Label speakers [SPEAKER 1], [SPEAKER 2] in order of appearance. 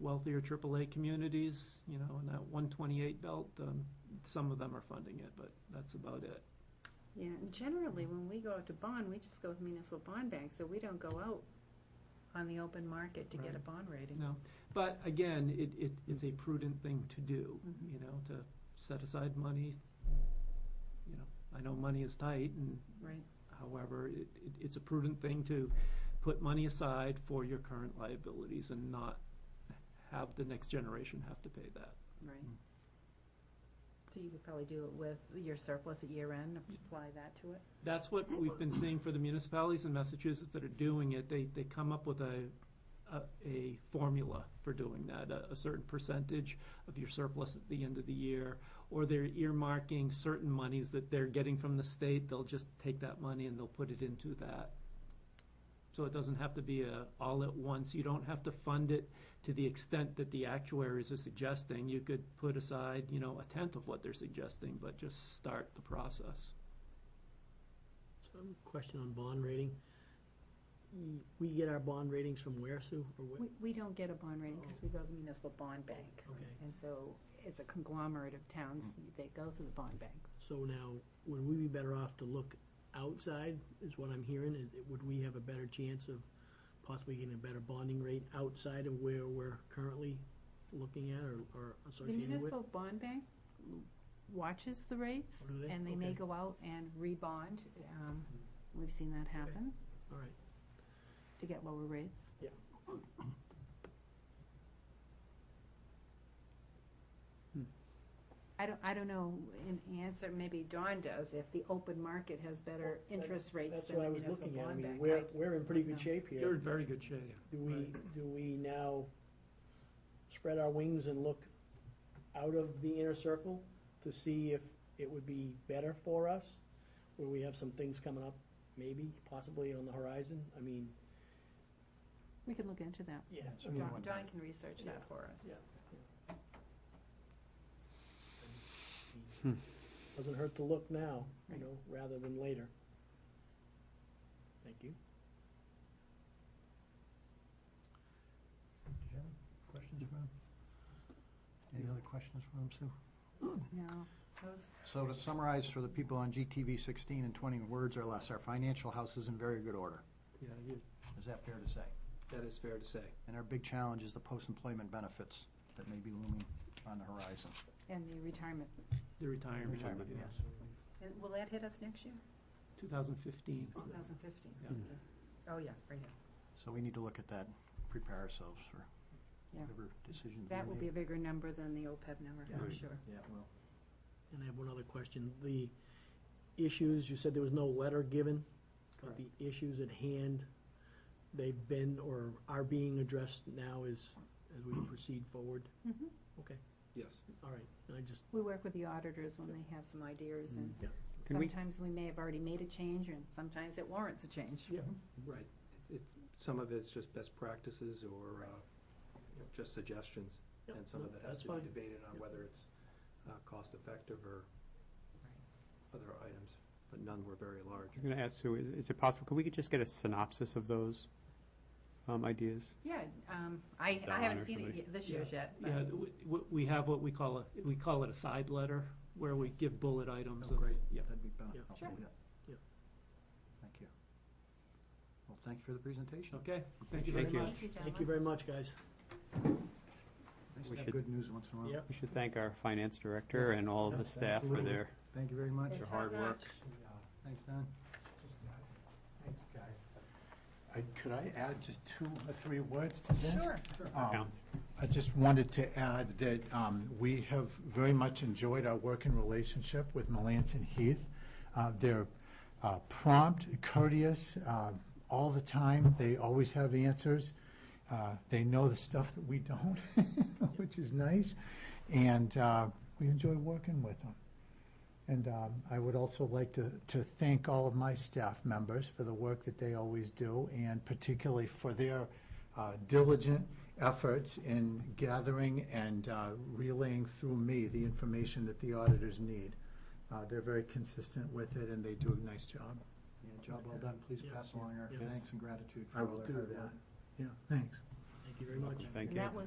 [SPEAKER 1] wealthier AAA communities, you know, in that 128 belt, um, some of them are funding it, but that's about it.
[SPEAKER 2] Yeah, and generally, when we go out to bond, we just go with municipal bond banks, so we don't go out on the open market to get a
[SPEAKER 1] Right.
[SPEAKER 2] bond rating.
[SPEAKER 1] No, but again, it, it, it's a prudent thing to do,
[SPEAKER 2] Mhm.
[SPEAKER 1] you know, to set aside money. You know, I know money is tight and
[SPEAKER 2] Right.
[SPEAKER 1] however, it, it, it's a prudent thing to put money aside for your current liabilities and not have the next generation have to pay that.
[SPEAKER 2] Right.
[SPEAKER 1] Mm.
[SPEAKER 2] So you could probably do it with your surplus at year end, apply that to it?
[SPEAKER 1] That's what we've been seeing for the municipalities in Massachusetts that are doing it. They, they come up with a, a, a formula for doing that, a, a certain percentage of your surplus at the end of the year, or they're earmarking certain monies that they're getting from the state. They'll just take that money and they'll put it into that. So it doesn't have to be a all at once. You don't have to fund it to the extent that the actuaries are suggesting. You could put aside, you know, a tenth of what they're suggesting, but just start the process.
[SPEAKER 3] So I have a question on bond rating. Mm, We get our bond ratings from where, Sue, or what?
[SPEAKER 2] We, we don't get a bond rating because we go to the municipal bond bank.
[SPEAKER 3] Oh. Okay, Hmm.
[SPEAKER 2] And so it's a conglomerate of towns, they go through the bond bank.
[SPEAKER 3] so now, would we be better off to look outside, is what I'm hearing? Is- Would we have a better chance of possibly getting a better bonding rate outside of where we're currently looking at or- or
[SPEAKER 2] The
[SPEAKER 3] associated with?
[SPEAKER 2] municipal bond bank watches the rates,
[SPEAKER 3] Oh, do they?
[SPEAKER 2] and they may
[SPEAKER 3] Okay. Hmm.
[SPEAKER 2] go out and rebond. Um, We've seen that happen
[SPEAKER 3] All right,
[SPEAKER 2] to get lower rates. Hmm. I don't, I don't know, in answer, maybe Dawn does, if the open market has better
[SPEAKER 3] Well, that-
[SPEAKER 2] interest rates
[SPEAKER 3] that's
[SPEAKER 2] than
[SPEAKER 3] what I
[SPEAKER 2] the
[SPEAKER 3] was
[SPEAKER 2] municipal
[SPEAKER 3] looking at. I
[SPEAKER 2] bond
[SPEAKER 3] mean,
[SPEAKER 2] bank.
[SPEAKER 3] we're,
[SPEAKER 2] I-
[SPEAKER 3] we're in pretty
[SPEAKER 2] No.
[SPEAKER 3] good shape
[SPEAKER 1] You're in
[SPEAKER 3] here.
[SPEAKER 1] very good shape.
[SPEAKER 3] Do we,
[SPEAKER 1] Right.
[SPEAKER 3] do we now spread our wings and look out of the inner circle to see if it would be better for us? Where we have some things coming up, maybe, possibly on the horizon? I mean,
[SPEAKER 2] We can look into that.
[SPEAKER 3] yeah.
[SPEAKER 4] So
[SPEAKER 3] I mean,
[SPEAKER 4] we
[SPEAKER 2] Dawn
[SPEAKER 4] wouldn't
[SPEAKER 2] Dawn
[SPEAKER 4] have-
[SPEAKER 2] can research
[SPEAKER 3] Yeah.
[SPEAKER 2] that for us.
[SPEAKER 3] Yeah. Doesn't hurt to look now, you
[SPEAKER 2] Right.
[SPEAKER 3] know, rather than later. Thank you.
[SPEAKER 4] Did you have any questions for him? Any other questions for him, Sue?
[SPEAKER 2] No, those,
[SPEAKER 4] So to summarize for the people on GTV 16 and 20 words or less, our financial house is in very good order.
[SPEAKER 1] Yeah, you,
[SPEAKER 4] Is that fair to say?
[SPEAKER 1] that is fair to say.
[SPEAKER 4] And our big challenge is the post-employment benefits that may be looming on the horizon.
[SPEAKER 2] and the retirement.
[SPEAKER 1] The retirement.
[SPEAKER 4] Retirement,
[SPEAKER 1] yeah.
[SPEAKER 4] yes.
[SPEAKER 2] And Will that hit us next year?
[SPEAKER 1] 2015.
[SPEAKER 2] 2015?
[SPEAKER 1] Yeah.
[SPEAKER 2] Oh, yeah, right.
[SPEAKER 4] So we need to look at that, prepare ourselves for
[SPEAKER 2] Yeah.
[SPEAKER 4] whatever decision we
[SPEAKER 2] That will be a
[SPEAKER 4] make.
[SPEAKER 2] bigger number than the OPEB number,
[SPEAKER 4] Yeah.
[SPEAKER 2] I'm
[SPEAKER 4] Right.
[SPEAKER 2] sure.
[SPEAKER 4] Yeah, well,
[SPEAKER 3] And I have one other question. The issues, you said there was no letter given, but
[SPEAKER 1] Correct.
[SPEAKER 3] the issues at hand, they've been or are being addressed now as, as we proceed forward?
[SPEAKER 2] Mhm.
[SPEAKER 3] Okay,
[SPEAKER 1] Yes.
[SPEAKER 3] all right. And I just,
[SPEAKER 2] We work with the auditors when they have some ideas, and
[SPEAKER 3] yeah,
[SPEAKER 5] Can we-
[SPEAKER 2] sometimes we may have already made a change, and sometimes it warrants a change.
[SPEAKER 3] yeah,
[SPEAKER 5] Right. It's, some of it's just best practices or, uh, you know, just suggestions.
[SPEAKER 3] Yeah,
[SPEAKER 5] And some of
[SPEAKER 3] no,
[SPEAKER 5] it has
[SPEAKER 3] that's
[SPEAKER 5] to be
[SPEAKER 3] fine.
[SPEAKER 5] debated on
[SPEAKER 3] Yeah.
[SPEAKER 5] whether it's, uh, cost effective or other items, but none were very large.
[SPEAKER 6] I'm going to ask Sue, is- is it possible, could we just get a synopsis of those um, ideas?
[SPEAKER 2] Yeah, um, I, I
[SPEAKER 6] Don
[SPEAKER 2] haven't
[SPEAKER 6] or
[SPEAKER 2] seen it
[SPEAKER 6] somebody.
[SPEAKER 2] yet- this year's yet. but-
[SPEAKER 1] Yeah, w- w- we have what we call a, we call it a side letter, where we give bullet items.
[SPEAKER 4] Oh,
[SPEAKER 1] of-
[SPEAKER 4] great.
[SPEAKER 1] Yeah.
[SPEAKER 4] that'd be better.
[SPEAKER 3] Yeah.
[SPEAKER 4] I'll
[SPEAKER 2] Sure.
[SPEAKER 4] do that.
[SPEAKER 3] Yeah.
[SPEAKER 4] Thank you. Well, thank you for the presentation.
[SPEAKER 1] Okay, thank you very
[SPEAKER 6] Thank
[SPEAKER 1] much.
[SPEAKER 6] you.
[SPEAKER 2] Thank you,
[SPEAKER 3] thank
[SPEAKER 2] gentlemen.
[SPEAKER 3] you very much, guys.
[SPEAKER 4] Nice
[SPEAKER 6] We
[SPEAKER 4] to have
[SPEAKER 6] should-
[SPEAKER 4] good news once in a while.
[SPEAKER 3] Yep.
[SPEAKER 6] We should thank our finance director and all of the
[SPEAKER 4] Yes,
[SPEAKER 6] staff for
[SPEAKER 4] absolutely.
[SPEAKER 6] their
[SPEAKER 4] Thank you very much.
[SPEAKER 2] It's
[SPEAKER 6] Your hard
[SPEAKER 2] top-notch.
[SPEAKER 4] Thanks, Don.
[SPEAKER 7] Thanks, guys. I- Could I add just two or three words to this? Sure.
[SPEAKER 6] Yeah.
[SPEAKER 7] I just wanted to add that um, we have very much enjoyed our working relationship with Melanson Heath. Uh, They're uh, prompt, courteous, uh, all the time. They always have answers. Uh, They know the stuff that we don't, which is nice. And uh, we enjoy working with them. And um, I would also like to, to thank all of my staff members for the work that they always do, and particularly for their uh, diligent efforts in gathering and uh, relaying through me the information that the auditors need. Uh, They're very consistent with it, and they do a nice job.
[SPEAKER 4] Yeah, job well done. Please
[SPEAKER 3] Yeah.
[SPEAKER 4] pass along our
[SPEAKER 3] Yes.
[SPEAKER 4] thanks and gratitude for
[SPEAKER 7] I
[SPEAKER 4] all
[SPEAKER 7] will
[SPEAKER 4] their
[SPEAKER 7] do
[SPEAKER 4] hard work.
[SPEAKER 7] that. Yeah, thanks.
[SPEAKER 3] Thank you very much.
[SPEAKER 6] Thank
[SPEAKER 2] And
[SPEAKER 6] you.
[SPEAKER 2] that was